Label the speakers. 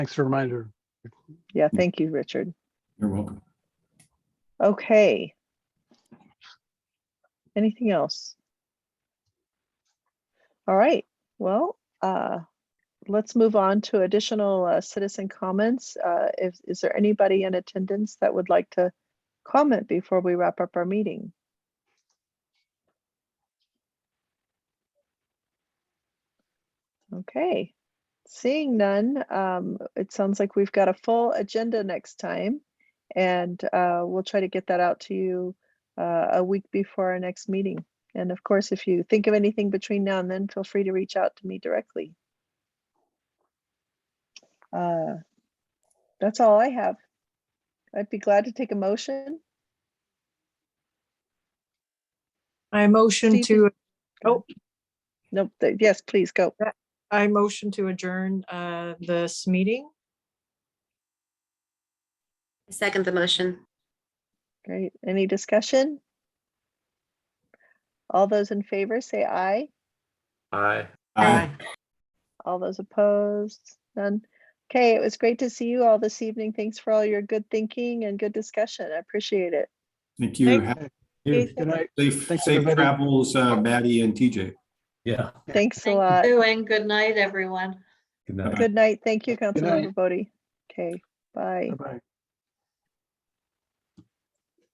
Speaker 1: Thanks for the reminder.
Speaker 2: Yeah, thank you, Richard.
Speaker 3: You're welcome.
Speaker 2: Okay. Anything else? All right, well, uh, let's move on to additional uh, citizen comments. Uh, if, is there anybody in attendance that would like to comment before we wrap up our meeting? Okay, seeing none, um, it sounds like we've got a full agenda next time. And uh, we'll try to get that out to you uh, a week before our next meeting. And of course, if you think of anything between now and then, feel free to reach out to me directly. Uh, That's all I have. I'd be glad to take a motion.
Speaker 4: I motion
Speaker 2: Steve,
Speaker 4: to, Oh.
Speaker 2: Nope, th- yes, please go.
Speaker 4: I motion to adjourn uh, this meeting.
Speaker 5: I Second the motion.
Speaker 2: Great. Any discussion? All those in favor, say aye.
Speaker 6: Aye.
Speaker 3: Aye.
Speaker 2: All those opposed? None? Okay, it was great to see you all this evening. Thanks for all your good thinking and good discussion. I appreciate it.
Speaker 3: Thank you.
Speaker 4: Thank-
Speaker 3: Have-
Speaker 2: Good
Speaker 1: Good night.
Speaker 3: Safe,
Speaker 1: Thanks,
Speaker 3: safe
Speaker 1: everybody.
Speaker 3: travels, uh, Maddie and TJ.
Speaker 6: Yeah.
Speaker 1: Yeah.
Speaker 2: Thanks a
Speaker 7: Thank
Speaker 2: lot.
Speaker 7: you, and good night, everyone.
Speaker 6: Good night.
Speaker 2: Good night. Thank you,
Speaker 1: night.
Speaker 2: Councilmember Bodie. Okay, bye.
Speaker 1: Bye-bye.